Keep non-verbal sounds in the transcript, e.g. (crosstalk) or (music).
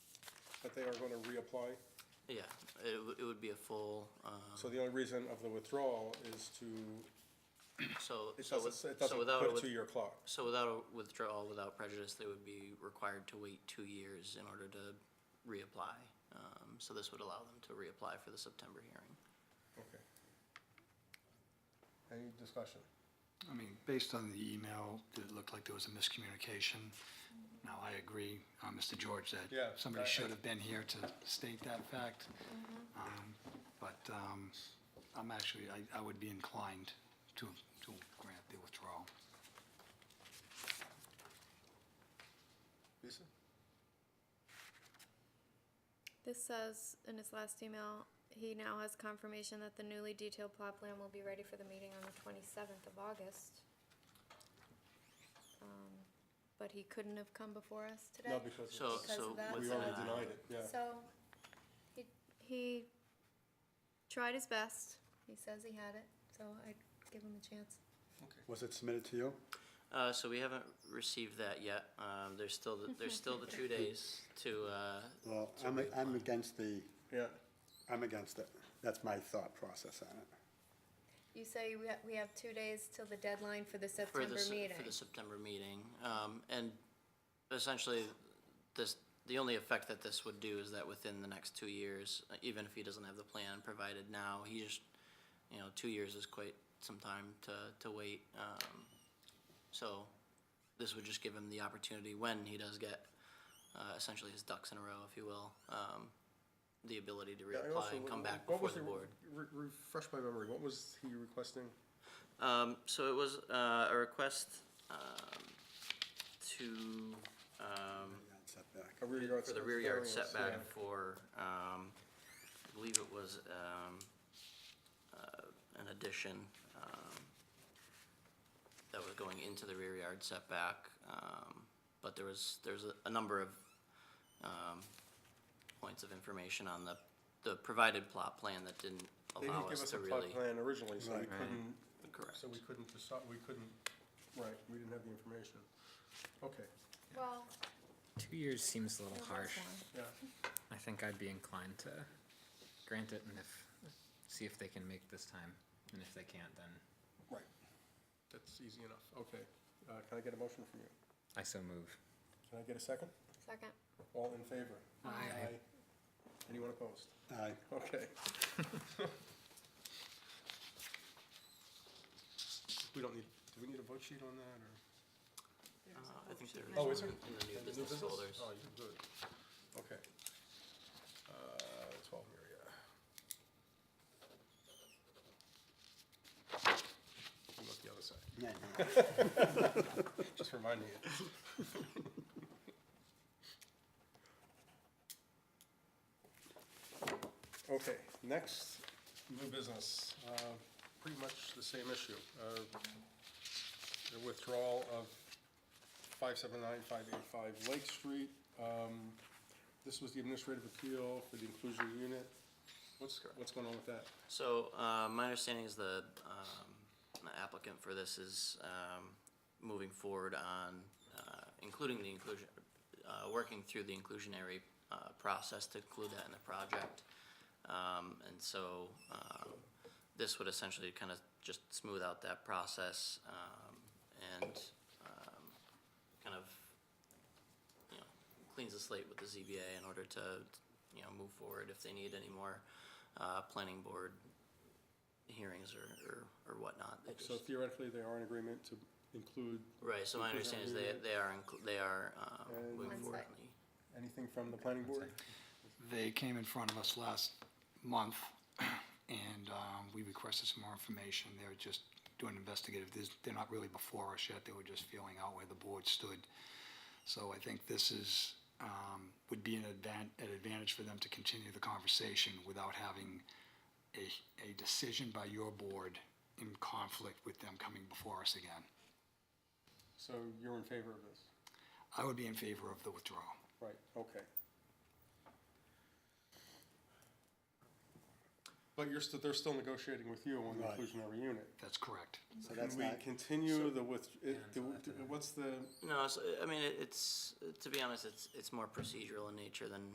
that they are going to reapply. Yeah, it, w- it would be a full, um, So the only reason of the withdrawal is to, so, it so with, doesn't, it so doesn't without, a put a with- two-year clock. so without a withdrawal, without prejudice, they would be required to wait two years in order to reapply. Um, so this would allow them to reapply for the September hearing. Okay. Any discussion? I mean, based on the email, it looked like there was a miscommunication. Now, I agree, uh, Mr. George, that Yeah, I- somebody I- should have been here to state that fact. Um, But um, I'm actually, I- I would be inclined to, to grant the withdrawal. Lisa? This says in his last email, he now has confirmation that the newly detailed plot plan will be ready for the meeting on the twenty-seventh of August. Um, But he couldn't have come before us today. No, because So, it's- Because so uh, of that, was we it's already not. denied it, yeah. So, he, he tried his best, he says he had it, so I'd give him a chance. Was it submitted to you? Uh, so we haven't received that yet. Um, there's still, the- there's still the (laughs) two days to, uh, Well, I'm, I'm against the, Yeah, I'm against it. That's my thought process on it. You say we have, we have two days till the deadline for the for September the, se- meeting. for the September meeting. Um, and essentially, this, the only effect that this would do is that within the next two years, uh, even if he doesn't have the plan provided now, he just, you know, two years is quite some time to, to wait. Um, so this would just give him the opportunity when he does get, uh, essentially his ducks in a row, if you will, um, the ability to Yeah, I also reapply and come wouldn't- back what before was the he- board. re- Refresh my memory, what was he requesting? Um, so it was, uh, a request, um, to, um, Setback. A rear yard for the set- rear yard variance, setback yeah. for, um, I believe it was, um, uh, an addition, um, that was going into the rear yard setback, um, but there was, there's a, a number of, um, points of information on the, the provided plot plan that didn't They allow didn't give us us to a really. plot plan originally, so we Right. Right. couldn't, Correct. so we couldn't, decide- we couldn't, right, we didn't have the information. Okay, Well, Two years seems a little there was harsh. one. yeah, I think I'd be inclined to grant it and if, see if they can make this time. And if they can't, then right. That's easy enough, okay. Uh, Can I get a motion from you? I so move. Can I get a second? Second. All in favor? Aye. Anyone opposed? Aye. Okay. (laughs) We don't need, do we need a vote sheet on that, or? Uh, I think there Oh, is is one there? in the new In the business folders. Oh, you good. Okay. Uh, twelve Maria. You look the other side, Yeah, just reminding you. Okay, next, new business, uh, pretty much the same issue. Uh, The withdrawal of 579, 585 Lake Street. Um, This was the administrative appeal for the inclusionary unit. What's, what's going on with that? So, uh, my understanding is the, um, the applicant for this is, um, moving forward on, uh, including the inclusion, uh, working through the inclusionary, uh, process to include that in the project. Um, and so, um, this would essentially kind of just smooth out that process, um, and, um, kind of, you know, cleans the slate with the ZBA in order to, you know, move forward if they need any more, uh, planning board hearings or, or, or whatnot. They So just- theoretically, they are in agreement to include Right, so my understanding is they, they are, inclu- they are, um, And- moving One forward sec. on the, anything from the planning board? They came in front of us last month, (clears throat) and um, we requested some more information. They were just doing investigative, This- they're not really before us yet, they were just feeling out where the board stood. So I think this is, um, would be an advan- an advantage for them to continue the conversation without having a, a decision by your board in conflict with them coming before us again. So you're in favor of this? I would be in favor of the withdrawal. Right, okay. But you're still, they're still negotiating with you on the Right. inclusionary unit. That's correct. So Can that's we not, continue the with, it- Yeah, the- until after that. what's the, no, so, I mean, it- it's, to be honest, it's, it's more procedural in nature than